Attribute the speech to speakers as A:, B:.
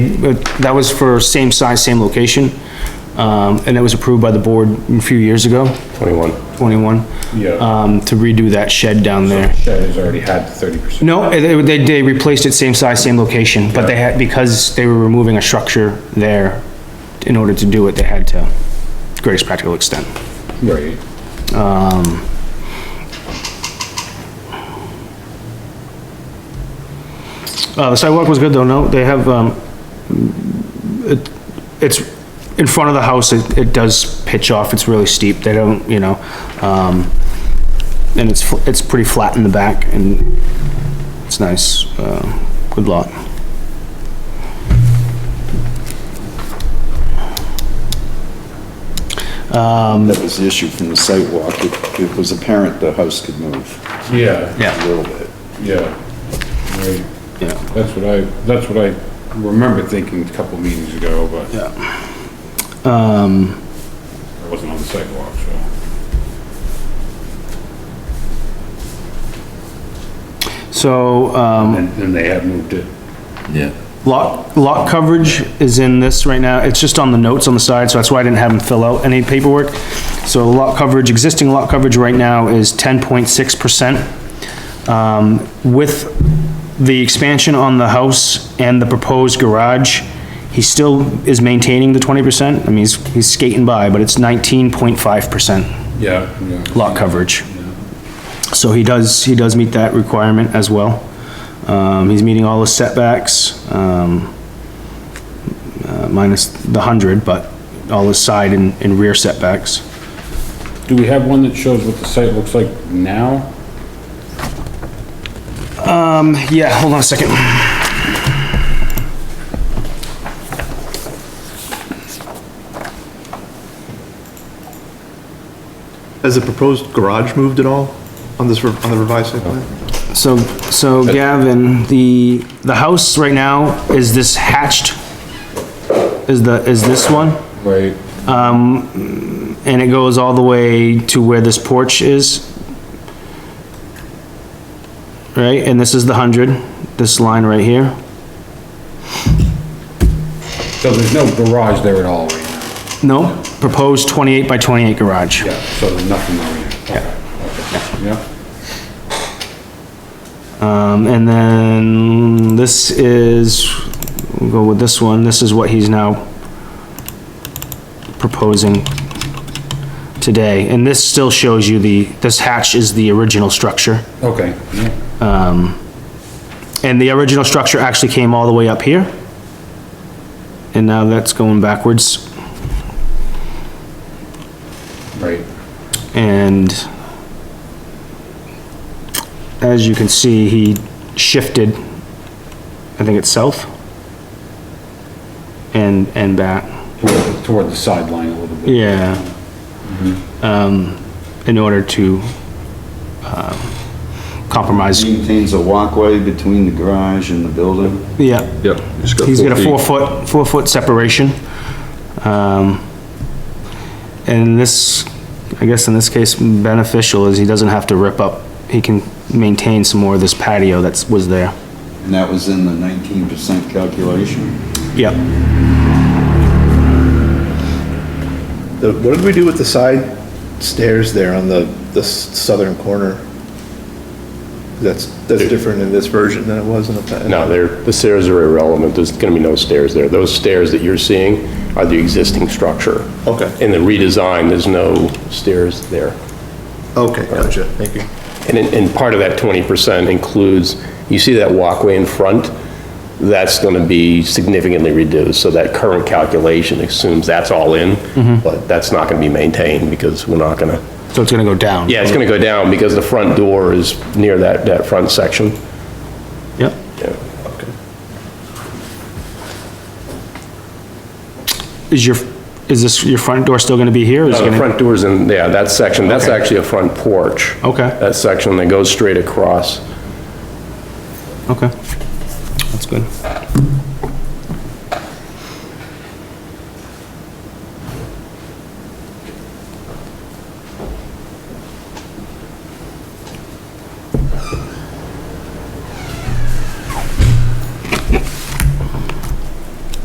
A: But That was for same size, same location, um, and that was approved by the board a few years ago,
B: 21.
A: 21.
C: Yeah.
A: Um, to redo that shed down there.
C: Shed has already had thirty percent.
A: No, they, they- they replaced it same size, same location, but they had, because they were removing a structure there, in order to do it, they had to, greatest practical extent.
C: Right.
A: Uh, the sidewalk was good though, no, they have, um, it, it's in front of the house, it, it does pitch off, it's really steep, they don't, you know, um, and it's, fl- it's pretty flat in the back and it's nice, uh, good lot.
D: That was the issue from the site walk. It, it was apparent the house could move
C: Yeah.
D: a little bit.
C: Yeah. Right.
A: Yeah.
C: That's what I, that's what I remember thinking a couple meetings ago, but. Um. Yeah. Um. I wasn't on the sidewalk, so.
A: So, um,
C: And, and they have moved it.
D: Yeah.
A: lot, lot coverage is in this right now, it's just on the notes on the side, so that's why I didn't have them fill out any paperwork. So lot coverage, existing lot coverage right now is ten point six percent. Um, with the expansion on the house and the proposed garage, he still is maintaining the twenty percent, I mean, he's, he's skating by, but it's nineteen point five percent
C: Yeah. Yeah.
A: lot coverage. So he does, he does meet that requirement as well. Um, he's meeting all the setbacks, um, uh, minus the hundred, but all the side and, and rear setbacks.
C: Do we have one that shows what the site looks like now?
A: Yeah, hold on a second.
E: Has the proposed garage moved at all on this, rev- on the revised site plan?
A: So, so Gavin, the, the house right now, is this hatched? Is the, is this one?
C: Right.
A: And it goes all the way to where this porch is? Right, and this is the hundred, this line right here?
C: So there's no garage there at all right now.
A: No, proposed 28 by 28 garage.
C: Yeah. So there's nothing there.
A: Yeah.
C: Yeah. Yeah.
A: Um, and then this is, we'll go with this one, this is what he's now proposing today. And this still shows you the, this hatch is the original structure.
C: Okay. Yeah.
A: And the original structure actually came all the way up here. And now that's going backwards.
C: Right.
A: And as you can see, he shifted, I think it's south and, and back,
C: Toward, toward the sideline a little bit.
A: yeah. Um, in order to, um, compromise,
D: Maintains a walkway between the garage and the building.
A: yeah.
B: Yep.
A: He's got a four foot, four foot separation. Um, and this, I guess in this case beneficial is he doesn't have to rip up, he can maintain some more of this patio that's, was there.
D: And that was in the nineteen percent calculation.
A: Yep,
E: The- What did we do with the side stairs there on the, the southern corner? That's, that's different in this version than it was in the past.
B: No, they're, the stairs are irrelevant. There's gonna be no stairs there. Those stairs that you're seeing are the existing structure.
E: Okay.
B: In the redesign, there's no stairs there.
E: Okay, gotcha, thank you.
B: And, in- and part of that 20% includes, you see that walkway in front? That's gonna be significantly reduced, so that current calculation assumes that's all in, but that's not gonna be maintained because we're not gonna,
A: so it's gonna go down.
B: yeah, it's gonna go down because the front door is near that, that front section.
A: Yep,
B: Yeah.
A: is your, is this, your front door still gonna be here? Is it
B: No, Oh, the
A: gonna-
B: front door's in, yeah, that section, that's
A: Okay.
B: actually a front porch.
A: Okay.
B: That section that goes straight across.
A: Okay, that's good.